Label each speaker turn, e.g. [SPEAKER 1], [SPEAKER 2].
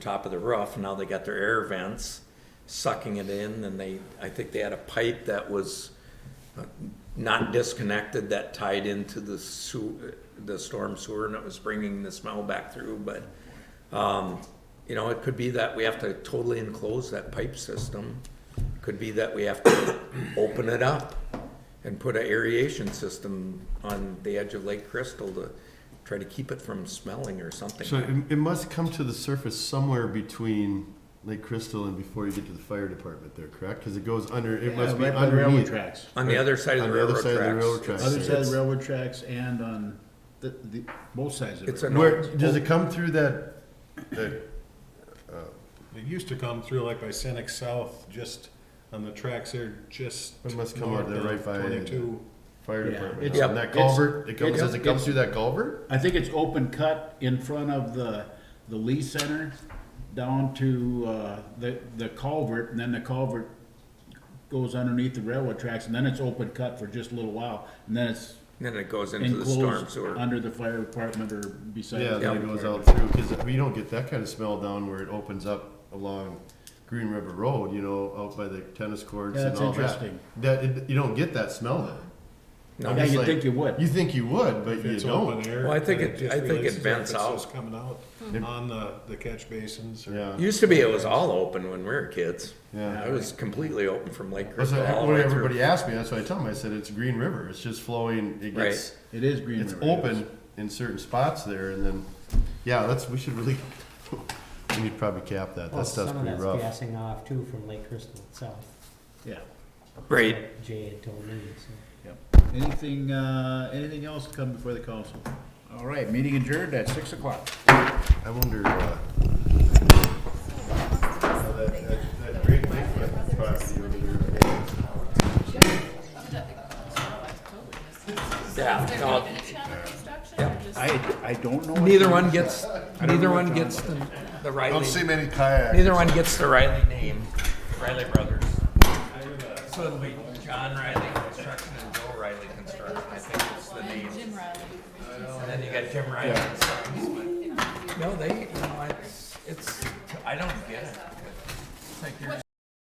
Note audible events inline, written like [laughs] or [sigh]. [SPEAKER 1] top of the roof. Now they got their air vents sucking it in and they, I think they had a pipe that was uh, not disconnected that tied into the sewer, the storm sewer and it was bringing the smell back through, but, um, you know, it could be that we have to totally enclose that pipe system. Could be that we have to open it up and put an aeration system on the edge of Lake Crystal to try to keep it from smelling or something.
[SPEAKER 2] So it, it must come to the surface somewhere between Lake Crystal and before you get to the fire department there, correct? Because it goes under, it must be
[SPEAKER 3] right by the railroad
[SPEAKER 2] underneath.
[SPEAKER 3] tracks.
[SPEAKER 1] On the other side of
[SPEAKER 2] On
[SPEAKER 1] the
[SPEAKER 2] the other
[SPEAKER 1] railroad
[SPEAKER 2] side of the railroad
[SPEAKER 1] tracks.
[SPEAKER 2] tracks.
[SPEAKER 3] Other side of
[SPEAKER 2] It's-
[SPEAKER 3] the railroad tracks and on the, the, both sides of
[SPEAKER 1] It's
[SPEAKER 3] it.
[SPEAKER 1] an-
[SPEAKER 2] Where, does it come through that, that,
[SPEAKER 4] It used to come through like by Senex South, just on the tracks there, just.
[SPEAKER 2] It must come out
[SPEAKER 4] north
[SPEAKER 2] there right
[SPEAKER 4] of
[SPEAKER 2] by-
[SPEAKER 4] Twenty-two.
[SPEAKER 2] fire
[SPEAKER 3] Yeah,
[SPEAKER 2] department?
[SPEAKER 3] it's-
[SPEAKER 2] house? And that
[SPEAKER 3] it's-
[SPEAKER 2] culvert, it comes,
[SPEAKER 3] it's-
[SPEAKER 2] does it come through that culvert?
[SPEAKER 3] I think it's open cut in front of the, the Lee Center down to, uh, the, the culvert, and then the culvert goes underneath the railroad tracks, and then it's open cut for just a little while, and then it's
[SPEAKER 1] Then it goes into the storm
[SPEAKER 3] enclosed
[SPEAKER 1] sewer.
[SPEAKER 3] under the fire department or beside.
[SPEAKER 2] Yeah,
[SPEAKER 3] the
[SPEAKER 2] then
[SPEAKER 3] fire
[SPEAKER 2] it goes
[SPEAKER 3] department.
[SPEAKER 2] out through, because you don't get that kind of smell down where it opens up along Green River Road, you know, out by the tennis courts
[SPEAKER 3] Yeah,
[SPEAKER 2] and
[SPEAKER 3] that's
[SPEAKER 2] all that.
[SPEAKER 3] interesting.
[SPEAKER 2] That, it- you don't get that smell there.
[SPEAKER 1] No.
[SPEAKER 2] I'm
[SPEAKER 3] Yeah,
[SPEAKER 2] just
[SPEAKER 3] you'd
[SPEAKER 2] like-
[SPEAKER 3] think you would.
[SPEAKER 2] You think you would, but
[SPEAKER 4] If
[SPEAKER 2] you
[SPEAKER 4] it's open
[SPEAKER 2] don't.
[SPEAKER 4] air.
[SPEAKER 1] Well, I think
[SPEAKER 4] then
[SPEAKER 1] it-
[SPEAKER 4] just
[SPEAKER 1] I think it
[SPEAKER 4] releases
[SPEAKER 1] vents
[SPEAKER 4] if it's
[SPEAKER 1] out.
[SPEAKER 4] just Coming out on the, the catch basins or.
[SPEAKER 2] Yeah.
[SPEAKER 1] Used to be it was all open when we were kids.
[SPEAKER 2] Yeah.
[SPEAKER 1] It was completely open from Lake
[SPEAKER 2] That's
[SPEAKER 1] Crystal
[SPEAKER 2] what,
[SPEAKER 1] all the
[SPEAKER 2] what
[SPEAKER 1] way through.
[SPEAKER 2] everybody asked me. That's what I tell them. I said it's Green River. It's just flowing. It
[SPEAKER 1] Right.
[SPEAKER 2] gets
[SPEAKER 3] It is Green
[SPEAKER 2] it's
[SPEAKER 3] River.
[SPEAKER 2] open in certain spots there, and then yeah, that's we should really [laughs] we need to probably cap that.
[SPEAKER 5] Well,
[SPEAKER 2] that stuff's
[SPEAKER 5] some of
[SPEAKER 2] pretty
[SPEAKER 5] that's
[SPEAKER 2] rough.
[SPEAKER 5] gassing off too from Lake Crystal itself.
[SPEAKER 3] Yeah,
[SPEAKER 1] Right.
[SPEAKER 5] Jay had told me, so.
[SPEAKER 3] yep. Anything, uh, anything else come before the council? All right, meeting adjourned at six o'clock.
[SPEAKER 2] I wonder. Uh, how that, that, that Great Lake property over there.
[SPEAKER 1] Yeah. no,
[SPEAKER 3] I, I don't know. what
[SPEAKER 1] Neither
[SPEAKER 3] the-
[SPEAKER 1] one gets, neither one gets the, the Riley,
[SPEAKER 2] many kayaks.
[SPEAKER 1] neither one gets the Riley name, Riley Brothers. So it'll be John Riley Construction and Joe Riley Construction, I think it's the name. And then you got Jim Riley and Sons, but, no, they, you know, it's, it's, I don't get it. It's like you're